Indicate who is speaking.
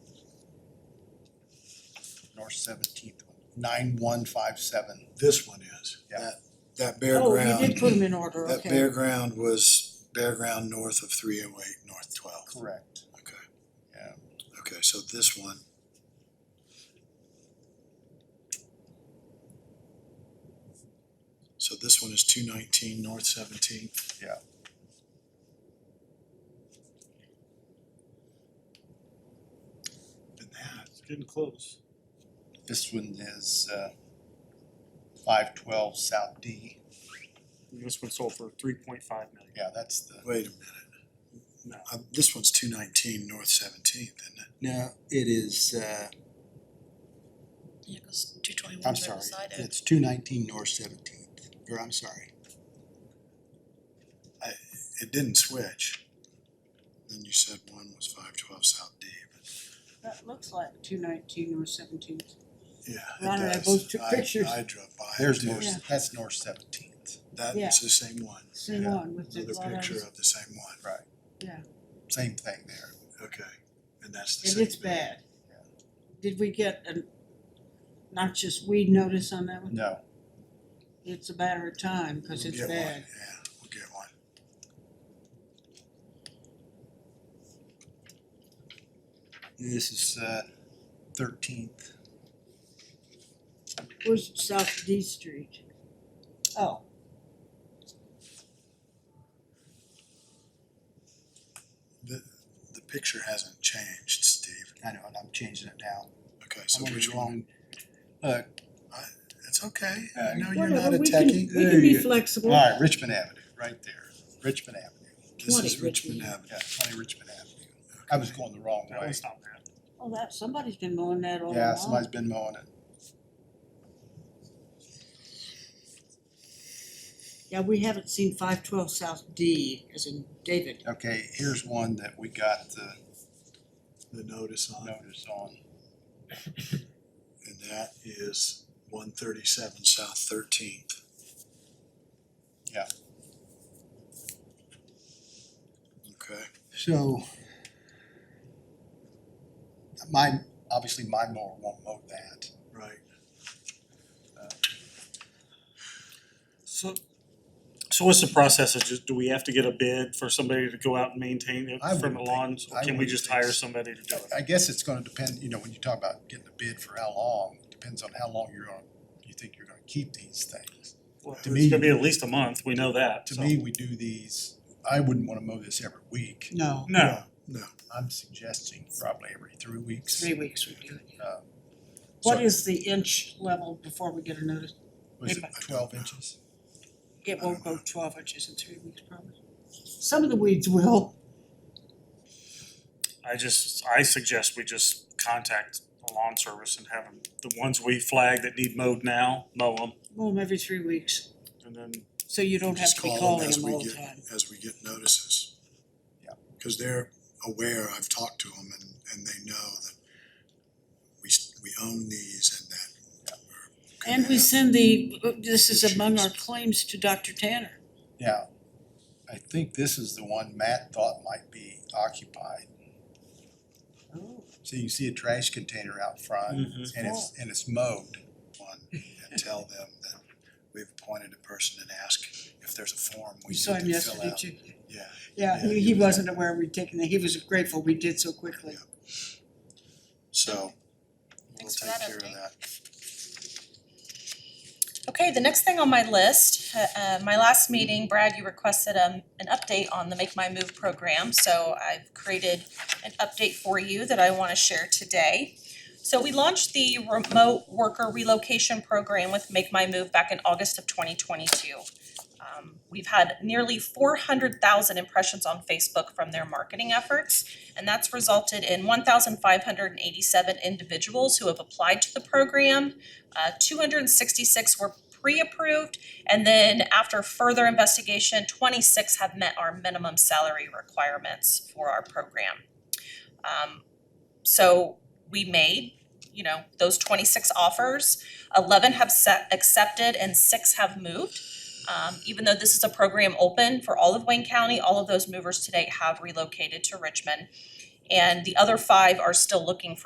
Speaker 1: North Seventeenth, nine one five seven.
Speaker 2: This one is.
Speaker 1: Yeah.
Speaker 2: That, that bare
Speaker 3: Oh, you
Speaker 2: ground,
Speaker 3: did put them in order,
Speaker 2: that
Speaker 3: okay.
Speaker 2: bare ground was bare ground north of three oh eight, north twelve.
Speaker 1: Correct.
Speaker 2: Okay,
Speaker 1: Yeah.
Speaker 2: okay, so this one. So this one is two nineteen, north seventeen.
Speaker 1: Yeah.
Speaker 2: And that,
Speaker 4: It's getting close.
Speaker 1: This one is uh five twelve South D.
Speaker 4: And This one sold for three point five million.
Speaker 1: Yeah, that's the,
Speaker 2: wait a minute,
Speaker 4: No,
Speaker 2: uh, this one's two nineteen, north seventeenth, isn't it?
Speaker 5: No, it is, uh,
Speaker 6: Yeah, because two twenty-one's
Speaker 5: I'm
Speaker 6: right
Speaker 5: sorry,
Speaker 6: beside it.
Speaker 5: it's two nineteen North Seventeenth, or I'm sorry.
Speaker 2: It didn't switch. Then you said one was five twelve South D, but
Speaker 3: That looks like two nineteen or seventeen.
Speaker 2: yeah,
Speaker 3: Ron and I
Speaker 2: it does.
Speaker 3: both took
Speaker 2: I-
Speaker 3: pictures.
Speaker 2: I drove by. it
Speaker 1: there's
Speaker 2: too.
Speaker 3: Yeah.
Speaker 1: North, that's North Seventeenth,
Speaker 2: That
Speaker 3: Yeah.
Speaker 2: is the same one.
Speaker 3: Same
Speaker 1: Yeah.
Speaker 3: one with the
Speaker 2: Another
Speaker 3: lot
Speaker 2: picture
Speaker 3: lines.
Speaker 2: of the same one.
Speaker 1: same thing there.
Speaker 2: Okay, and that's the
Speaker 3: And
Speaker 2: same.
Speaker 3: it's bad. Did we get a not just weed notice on that one?
Speaker 1: No,
Speaker 3: It's a matter of time, cause it's bad.
Speaker 2: Yeah, we'll get one.
Speaker 1: this is uh thirteenth,
Speaker 3: Where's South D Street? Oh,
Speaker 2: The, the picture hasn't changed, Steve.
Speaker 5: I know, and I'm changing it now.
Speaker 2: Okay, so
Speaker 5: I'm on the
Speaker 2: which one?
Speaker 5: wrong- Look,
Speaker 2: It's okay.
Speaker 1: Uh,
Speaker 2: I know Oh, you're not
Speaker 3: whatever,
Speaker 2: a
Speaker 3: we can, we
Speaker 2: techie.
Speaker 1: There
Speaker 3: can be
Speaker 1: you go.
Speaker 3: flexible.
Speaker 1: all right, Richmond Avenue, right there, Richmond Avenue,
Speaker 2: This
Speaker 3: 20
Speaker 2: is Richmond Avenue.
Speaker 1: yeah, twenty Richmond Avenue. I was going the wrong
Speaker 4: that
Speaker 1: way.
Speaker 4: one's not bad.
Speaker 3: Oh, that, somebody's been mowing that all
Speaker 1: Yeah,
Speaker 3: along.
Speaker 1: somebody's been mowing it.
Speaker 3: Yeah, we haven't seen five twelve South D, as in David.
Speaker 1: Okay, here's one that we got the
Speaker 2: The notice on, it,
Speaker 1: notice on.
Speaker 2: and that is one thirty-seven South Thirteenth.
Speaker 1: Yeah.
Speaker 2: Okay,
Speaker 5: so,
Speaker 1: My, obviously my mower won't mow that.
Speaker 2: right.
Speaker 4: So, so what's the process? Is just, do we have to get a bid for somebody to go out and maintain it
Speaker 1: I wouldn't
Speaker 4: from the
Speaker 1: think-
Speaker 4: lawns?
Speaker 1: I
Speaker 4: Or can we
Speaker 1: wouldn't
Speaker 4: just
Speaker 1: think
Speaker 4: hire
Speaker 1: so.
Speaker 4: somebody to do it?
Speaker 1: I guess it's gonna depend, you know, when you talk about getting a bid for how long, depends on how long you're gonna, you think you're gonna keep these things.
Speaker 4: Well,
Speaker 1: to me-
Speaker 4: It's gonna be at least a month, we know that,
Speaker 1: To
Speaker 4: so.
Speaker 1: me, we do these, I wouldn't wanna mow this every week.
Speaker 3: No,
Speaker 4: No,
Speaker 2: No,
Speaker 1: I'm suggesting probably every three weeks.
Speaker 3: three weeks would do it.
Speaker 2: Um,
Speaker 1: Uh,
Speaker 3: What
Speaker 1: so-
Speaker 3: is the inch level before we get a notice?
Speaker 1: Was it twelve inches?
Speaker 3: It
Speaker 2: won't go
Speaker 3: twelve inches in three weeks probably. Some of the weeds will.
Speaker 4: I just, I suggest we just contact the lawn service and have them, the ones we flag that need mowed now, mow them.
Speaker 3: Mow them every three weeks,
Speaker 4: And then
Speaker 3: so you don't have
Speaker 2: just
Speaker 3: to be
Speaker 2: call them
Speaker 3: calling
Speaker 2: as
Speaker 3: them
Speaker 2: we
Speaker 3: all the
Speaker 2: get,
Speaker 3: time.
Speaker 2: as we get notices.
Speaker 1: Yeah.
Speaker 2: Cause they're aware, I've talked to them and, and they know that we, s- we own these and that. we're gonna
Speaker 3: And we
Speaker 2: have-
Speaker 3: send the, this is among our claims to Dr. Tanner.
Speaker 1: Now, I think this is the one Matt thought might be occupied.
Speaker 3: Oh.
Speaker 1: So you see a trash container out front
Speaker 4: Mhm.
Speaker 1: and it's, and it's mowed.
Speaker 2: One, and tell them that we've appointed a person and ask if there's a form we
Speaker 3: We
Speaker 2: need
Speaker 3: saw him
Speaker 2: to fill
Speaker 3: yesterday
Speaker 2: out.
Speaker 3: too.
Speaker 2: Yeah,
Speaker 3: Yeah,
Speaker 2: Yeah,
Speaker 3: he,
Speaker 2: he
Speaker 3: he
Speaker 2: was-
Speaker 3: wasn't aware we'd taken that, he was grateful we did so quickly.
Speaker 2: so we'll
Speaker 6: Thanks for
Speaker 2: take
Speaker 6: that
Speaker 2: care of
Speaker 6: update.
Speaker 2: that.
Speaker 6: Okay, the next thing on my list, uh, uh, my last meeting, Brad, you requested um, an update on the Make My Move program. So I've created an update for you that I wanna share today. So we launched the remote worker relocation program with Make My Move back in August of twenty twenty-two. Um, We've had nearly four hundred thousand impressions on Facebook from their marketing efforts. And that's resulted in one thousand five hundred and eighty-seven individuals who have applied to the program. Uh, two hundred and sixty-six were pre-approved, and then after further investigation, twenty-six have met our minimum salary requirements for our program. Um, so we made, you know, those twenty-six offers, eleven have set, accepted, and six have moved. Um, even though this is a program open for all of Wayne County, all of those movers today have relocated to Richmond. And the other five are still looking for.